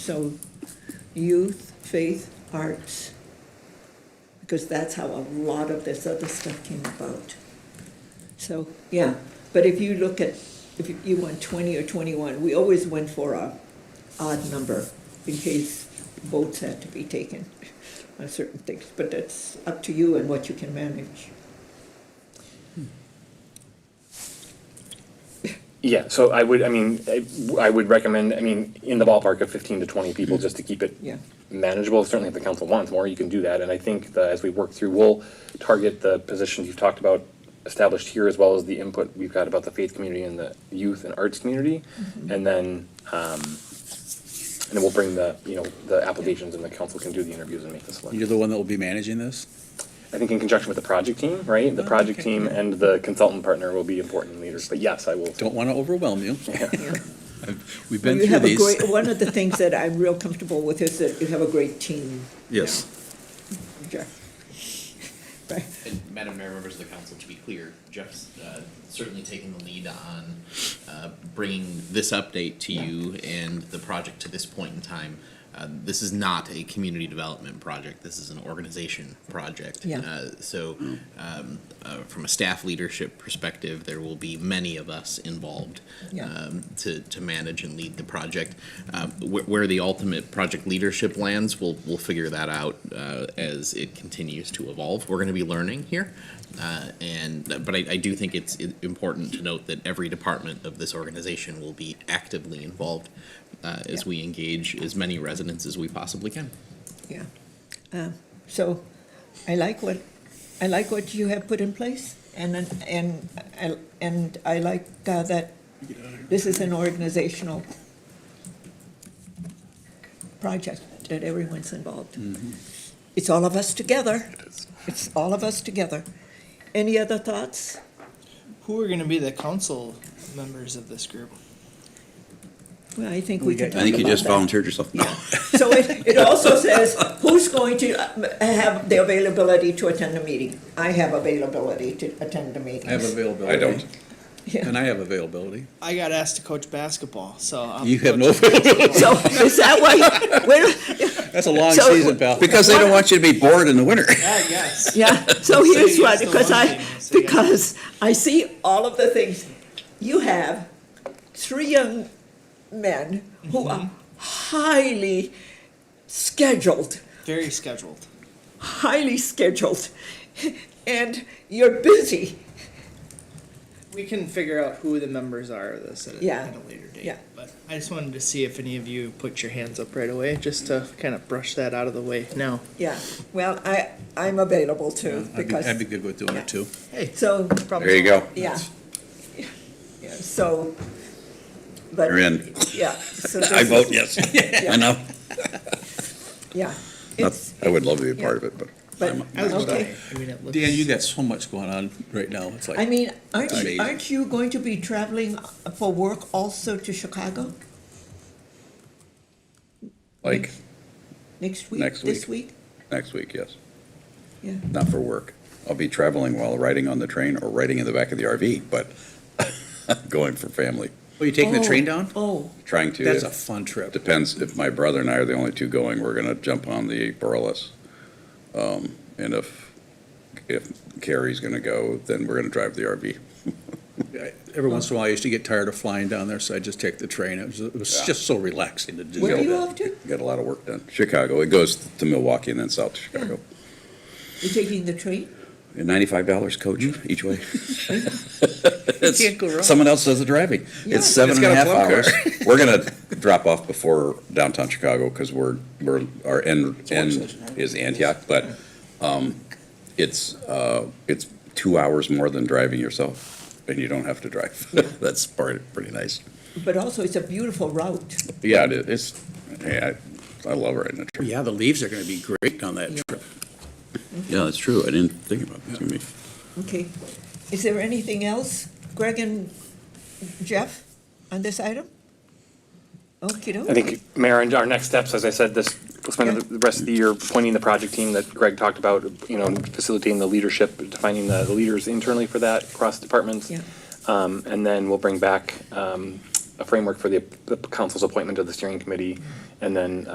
So youth, faith, arts, because that's how a lot of this other stuff came about. So, yeah, but if you look at, if you- you want twenty or twenty-one, we always went for a odd number in case votes had to be taken on certain things, but that's up to you and what you can manage. Yeah, so I would, I mean, I- I would recommend, I mean, in the ballpark of fifteen to twenty people, Mm-hmm. just to keep it Yeah. manageable, certainly if the council wants more, you can do that, and I think that as we work through, we'll target the positions you've talked about established here, as well as the input we've got about the faith community and the youth and arts community, Mm-hmm. and then, um, and then we'll bring the, you know, the applications and the council can do the interviews and make the selection. You're the one that will be managing this? I think in conjunction with the project team, right, the Oh, project okay. team and the consultant partner will be important leaders, but yes, I will. Don't want to overwhelm you. yeah. We've Well, been you through have a these. great. One of the things that I'm real comfortable with is that you have a great team. Yes. Jack. Right. And Madam Mayor, members of the council, to be clear, Jeff's uh, certainly taking the lead on uh, bringing this update to you and the project to this point in time. Uh, This is not a community development project, this is an organization project. Yeah. Uh, So um, uh, from a staff leadership perspective, there will be many of us involved Yeah. um, to, to manage and lead the project. Uh, where, where the ultimate project leadership lands, we'll, we'll figure that out uh, as it continues to evolve. We're going to be learning here, uh, and but I, I do think it's i- important to note that every department of this organization will be actively involved uh, as Yeah. we engage as many residents as we possibly can. Yeah. Um, So I like what, I like what you have put in place and, then- and, I- and I like uh, that this is an organizational project that everyone's involved. It's all of us together. It's all of us together. Any other thoughts? Who are going to be the council members of this group? Well, I think we can I talk think you about just that. volunteered yourself. No. So it, it also says who's going to uh, have the availability to attend a meeting. I have availability to attend the meetings. availability. I don't. Yeah. And I have availability. I got asked to coach basketball, so I'm You have no coaching basketball. So is that why, where, That's a long So- season, pal. Because they don't want you to be bored in the winter. Yeah, yes. yeah, so here's So why, here's the because one I, thing, so yeah. because I see all of the things. You have three young men Mm-hmm. who are highly scheduled, Very scheduled. highly scheduled, and you're busy. We can figure out who the members are of this at, a- Yeah. at a later date. Yeah. But I just wanted to see if any of you put your hands up right away, just to kind of brush that out of the way now. Yeah, well, I, I'm available too, I'd be, because. I'd be good with doing it too. Hey, So, There you go. yeah. Yeah, So. but- You're in. Yeah. so this I vote is- yes. I know. Yeah. Not- It's- I would love to be a part of it, but But, I was okay. I mean, it looks. Dan, you got so much going on right now. It's I like, mean, aren't, Amazing. aren't you going to be traveling for work also to Chicago like, next week? Next This week? next week, yes. Yeah. Not for work. I'll be traveling while riding on the train or riding in the back of the RV, but going for family, oh, you taking the Oh, train down? Oh, trying to. That's a fun trip. Depends if my brother and I are the only two going, we're gonna jump on the Burles. Um, and if, if Carrie's gonna go, then we're gonna drive the RV. I- Every once in a while, I used to get tired of flying down there, so I just take the train. It was, it was Yeah. just so relaxing to do. where are that. you off to? Got a lot of work done. Chicago, it goes to Milwaukee and then south to Chicago. You're taking the train? And Ninety-five dollars coach Mm-hmm. each way. can't go wrong. Someone else does the driving. Yeah. It's It's seven and got a half a club hours. We're gonna drop off before downtown Chicago because we're, we're, our end, a work end session, right? is Antioch, but, um, it's, uh, it's two hours more than driving yourself and you don't have to drive. That's part, pretty nice. But also, it's a beautiful route. Yeah, it- it's, yeah, I I love riding a trip. Yeah, the leaves are going to be great on that trip. Yeah, that's true. I didn't think about that. It's gonna be- Okay. Is there anything else, Greg and Jeff, on this item? Okay, I think, Mayor, and our next steps, as I said, this, we'll spend the rest of the year pointing the project team that Greg talked about, you know, facilitating the leadership, defining the the leaders internally for that across departments. Yeah. Um, and then we'll bring back, um, a framework for the, the council's appointment of the steering committee And then